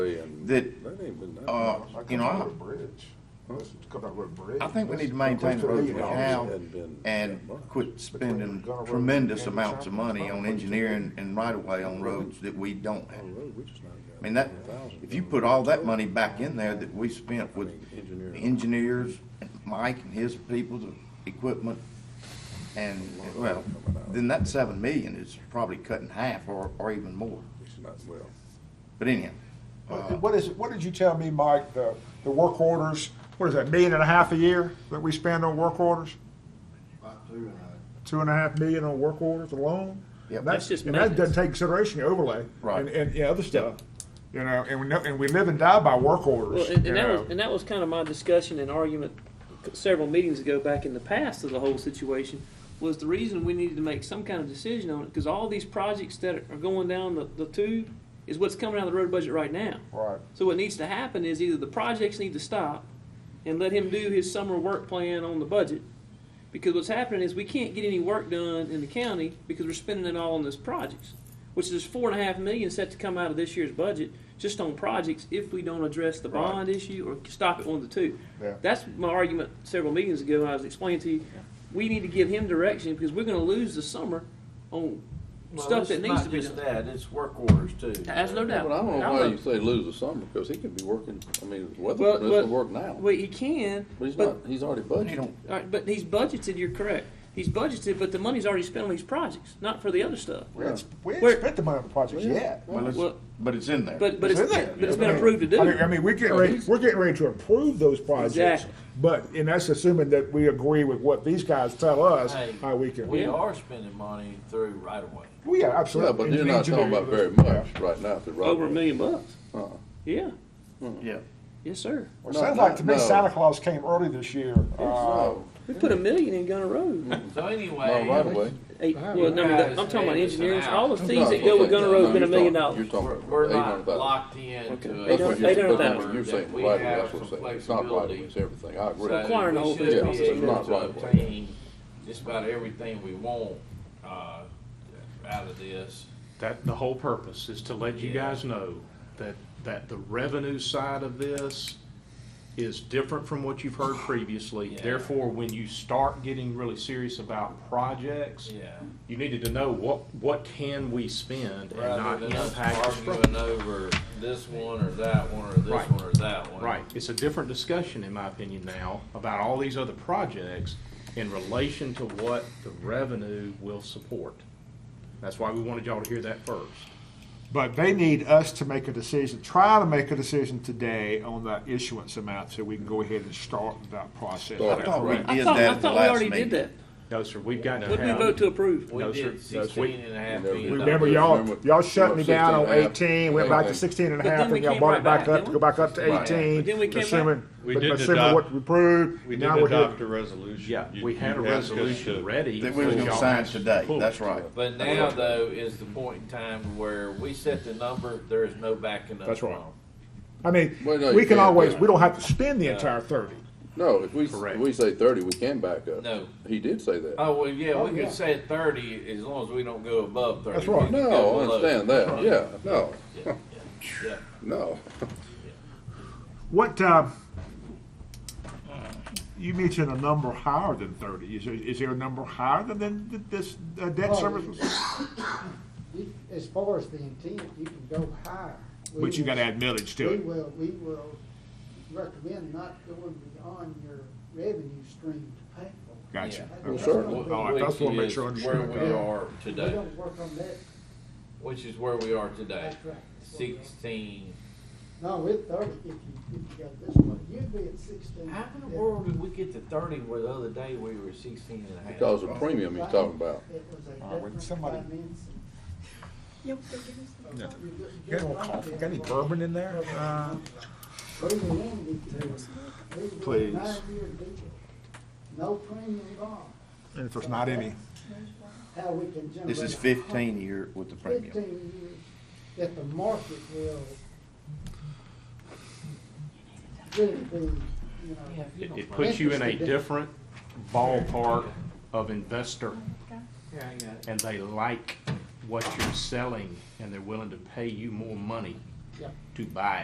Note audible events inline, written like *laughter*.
that, That ain't been that Uh, much. you know, I- Come over the bridge. That's come over the bridge. I think we need to That's- maintain the roads we That's- have Hadn't been that and much. quit spending tremendous amounts of money on engineering and right-of-way on roads that we don't I have. don't know, we just not got I mean, that, 1,000. if you put all that money back in there that we spent with the engineers, Mike and his people's equipment, and, well, then that seven million is probably cut in half or, or even more. It's not, well, But anyhow, What what is, what did you tell me, Mike, the, the work orders, what is that, million and a half a year that we spend on work orders? About two and a Two and a half million on work orders alone? Yep. That's That's just And that doesn't maintenance. take consideration your overlay. Right. And, and, yeah, other stuff, you know, and we know, and we live and die by work Well, orders, and, you and that know. was and that was kind of my discussion and argument several meetings ago back in the past of the whole situation was the reason we needed to make some kind of decision on it because all these projects that are going down the, the tube is what's coming out of the road budget right now. Right. So what needs to happen is either the projects need to stop and let him do his summer work plan on the budget. Because what's happening is we can't get any work done in the county because we're spending it all on those projects. Which is four and a half million set to come out of this year's budget just on projects if we don't address the Right. bond issue or stop on the two. Yeah. That's my argument several meetings ago when I was explaining to you. We need to give him direction because we're gonna lose the summer on half. stuff that needs to be It's not done. just that, it's work orders too. That's no doubt. But I don't know I'm why not- you say lose the summer, because he could be working, I mean, his weather Well, permit's but- gonna work now. Well, he can, But he's but- not, he's already you budgeted. don't, All right, but he's budgeted, you're correct. He's budgeted, but the money's already spent on these projects, not for the other stuff. We ain't sp- we Where- ain't spent the money on the project yet. well, it's, Well- but it's in there. But, but it's, It's in there. but it's been approved to do. I mean- I mean, we're getting ready, we're getting ready to approve those projects, Exactly. but, and that's assuming that we agree with what these guys tell us, Hey, how we can. We Yeah. are spending money through right away. Well, yeah, Yeah, absolutely. but you're not talking about very much right now, if the right. Over a million bucks. Uh-uh. Yeah, Yeah, yes, sir. Well, it No, sounds like to me no. Santa Claus came early this year. Uh, No, We put a million in Gunner Road. So no, right anyway, away. Eight, well, no, I'm talking about engineering, all the fees No, that go with no, Gunner Road's been a you're million talking- dollars. You're we're, talking we're about eight not hundred thousand. locked into. Okay. That's what Eight you're, hundred that's thousand. what you're saying, We right away, have that's what some I'm saying, it's not right away, flexibility. it's everything, I agree. So Requiring the we whole thing. should be Yeah, it's able not to right away. obtain Just about everything we want, uh, out of this. That, the whole purpose is to let you Yeah. guys know that, that the revenue side of this is different from what *sighs* you've heard previously. Yeah. Therefore, when you start getting really serious about projects, Yeah. you needed to know what, what can we spend and Rather not than us impact the arguing over this one or that one or this Right. one or that one. Right, it's a different discussion, in my opinion, now, about all these other projects in relation to what the revenue will support. That's why we wanted y'all to hear that first. But they need us to make a decision, try to make a decision today on the issuance amount so we can go ahead and start that process. I thought we I did thought, that I at the thought we last already did meeting. that. No, sir, we've got to have. What did we vote to approve? We No, sir. did No, sir. sixteen and a half No, we- million. Remember dollars. y'all, Remember- y'all shut me remember down on 16 and a half. eighteen, went back to Right. 16 and a But half, then we and y'all came brought it right back back, up, didn't to we? go back up to Right. eighteen, But then we came back- assuming, We did assuming adopt- what we approved. We did now we're here. adopt a resolution. Yeah, You- we had a you asked us resolution to- ready. That we was for gonna y'all sign to today, pull. that's right. But now though is the point in time where we set the number, there is no backing up. That's right. on. I mean, Well, no, we you can't, can always, yeah. we don't have to spend the entire thirty. No, if we, Correct. we say thirty, we can back up. No. He did say that. Oh, well, yeah, Oh, we yeah. could say thirty as long as we don't go above thirty. That's right. We can No, go I below. understand that, yeah, no, Yeah, yeah, *laughs* no. What, uh, you mentioned a number higher than thirty. Is there, is there a number higher than, than this uh, debt Oh, service? You- As far as the intent, you can go higher. We But you gotta will- add millage to We it. will, we will recommend not going beyond your revenue stream to pay for. it. Gotcha. That- Well, that's certainly. gonna be- All right, that's what I make sure I Which is understand Where we that. are We today, don't work on that, which is where we are today, That's right. sixteen. no, with thirty, if you, if you go this way, you'd be at sixteen. How in the world did we get to thirty where the other day we were sixteen and a half? Because of premium he's talking about. It was a All right, when different somebody- finance. No. You wouldn't You get got any right coffee? there. Got any bourbon in there? Uh, We were limited to- we were Please. nine-year deal. No premium involved. And if there's not any, how we can generate. This is fifteen year with the premium. Fifteen years that the market will really be, you know. It it puts you in a Interested. different ballpark of investor, and they like what you're selling, and they're willing to pay you more money Yeah. to buy